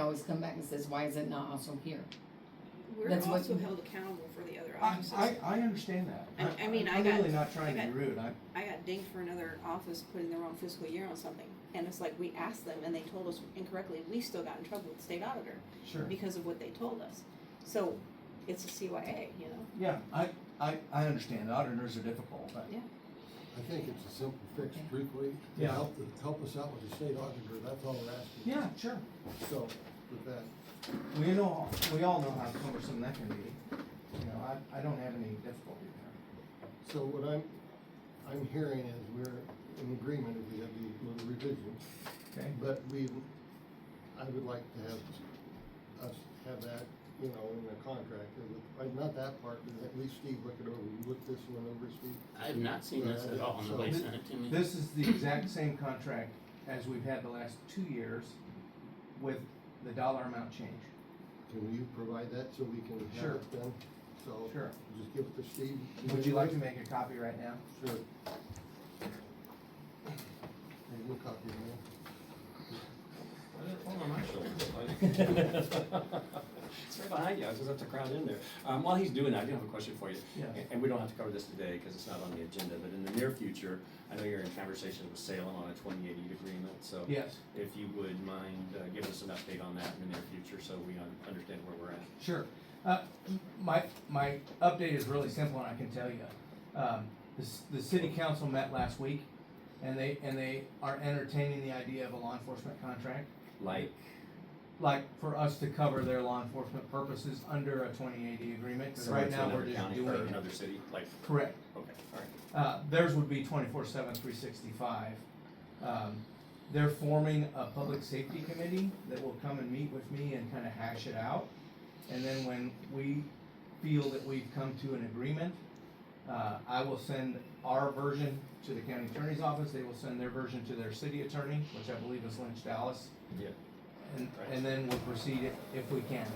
always come back and says, why is it not also here? We're That's what- also held accountable for the other I, offices. I, I understand that. I- I mean, I I'm got- really not trying I to be got- rude, I, I got dinged for another office putting the wrong fiscal year on something. And it's like, we asked them and they told us incorrectly, and we still got in trouble with the state auditor sure, because of what they told us. So, it's a CYA, you know? yeah, I, I, I understand, auditors are difficult, but. Yeah. I think it's a simple fix, Okay. truthfully, to Yeah. help, to help us out with the state auditor, that's all we're asking. Yeah, sure, So, with that, we know, we all know how cumbersome that can be, you know, I, I don't have any difficulty there. so what I'm, I'm hearing is we're in agreement if we have the little revision, Okay. but we, I would like to have us have that, you know, in the contract, or with- like, not that part, but at least Steve look it over, you look this one over, Steve. I have not seen this at all So- nobody sent it to me. This is the exact same contract as we've had the last two years with the dollar amount change. Can you provide that so we can Sure. have it done? So, Sure. just give it to Steve. Would you like to make a copy right now? Sure. Hey, we'll copy it, man. Why did it fall on my shoulder? It's right behind you, I was just have to crowd in there. Um, while he's doing that, I do have a question for you. Yeah. And- And we don't have to cover this today, because it's not on the agenda, but in the near future, I know you're in conversations with Salem on a twenty eighty agreement, so. Yes, If you would mind, uh, give us an update on that in the near future, so we un- understand where we're at. sure. Uh, my, my update is really simple and I can tell you. Um, the, s- the city council met last week and they, and they are entertaining the idea of a law enforcement contract. Like, Like for us to cover their law enforcement purposes under a twenty eighty agreement, 'cause similar right to now we're another just county doing or it. another city, like, Correct. okay, all right. Uh, theirs would be twenty-four seven, three sixty-five. Um, they're forming a public safety committee that will come and meet with me and kind of hash it out. And then when we feel that we've come to an agreement, uh, I will send our version to the county attorney's office. They will send their version to their city attorney, which I believe is Lynch Dallas. Yeah. And, Right. and then we'll proceed if- if we can.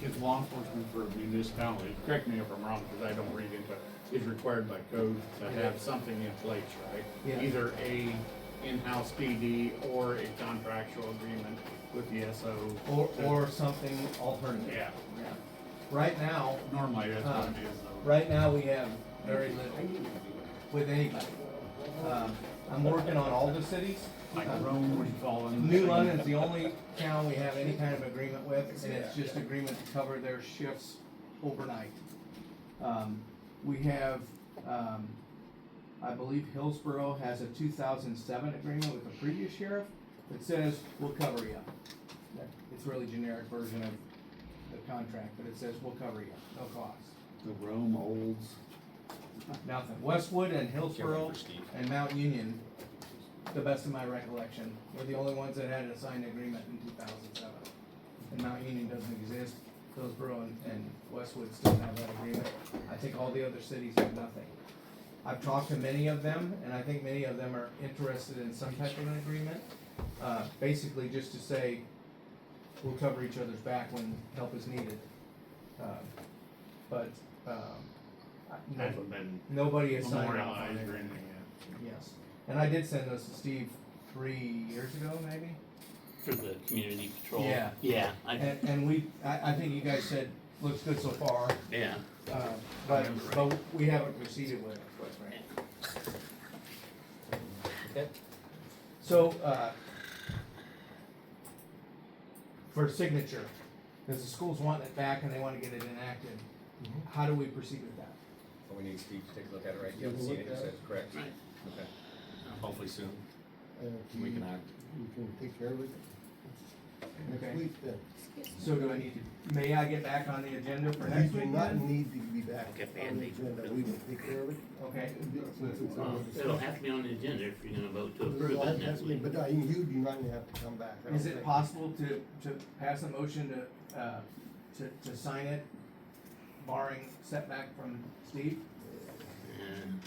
Because law enforcement for a municipality, correct me if I'm wrong, because I don't read into it, is required by code to have something in place, right? Yeah. Either a in-house PD or a contractual agreement with the SO. Or, or something alternative. Yeah, Yeah. Right now, normally that's what it is though. Right now, we have very little with anybody. Um, I'm working on all the cities. Um, Like Rome would fall in. New London's the only town we have any kind of agreement with, and it's just agreement to cover their shifts overnight. Um, we have, um, I believe Hillsborough has a two thousand seven agreement with the previous sheriff that says, we'll cover you. That- It's really generic version of the contract, but it says, we'll cover you, no cost. The Rome olds. Nothing. Westwood and Hillsboro for Steve. and Mount Union, the best of my recollection, were the only ones that had a signed agreement in two thousand seven. And Mount Union doesn't exist. Hillsboro and, and Westwood still have that agreement. I think all the other cities have nothing. I've talked to many of them, and I think many of them are interested in some type of an agreement. Uh, basically just to say, we'll cover each other's back when help is needed. Uh, But, um, I- no- Hasn't been Nobody has signed off on memorialized or it. anything Yes, and I did send those to Steve three years ago, maybe. For the community patrol. Yeah. Yeah, I, And, and we, I, I think you guys said, looks good so far, yeah. uh, but, Remember, right? but we haven't proceeded with it, quite frankly. Okay. So, uh, for signature, because the schools want it back and they want to get it enacted, Mm-hmm. how do we proceed with that? But we need Steve to take a look at it, right? You Yeah, haven't we'll look seen it, you at said, it. correct? Right. Okay. Hopefully soon, And if we you- can uh, act. You can take care of it Okay. next week then. So do I need to, may I get back on the agenda for We next do week not then? need to be back Okay, on the Andy. agenda, we will take care of it. Okay, Since it's Well, on the- it'll have to be on the agenda if you're gonna vote to approve um, Well, it that's next me, week. But I- you do not have to come back. I don't is it think. possible to, to pass a motion to, uh, to, to sign it barring setback from Steve? And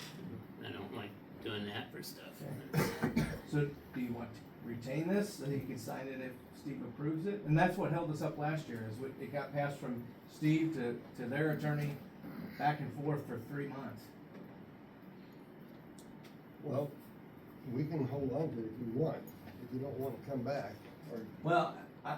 I don't like doing that for stuff. So do you want to retain this so you can sign it if Steve approves it? And that's what held us up last year is we- it got passed from Steve to, to their attorney back and forth for three months. Well, we can hold on to it if you want, if you don't wanna come back, or Well,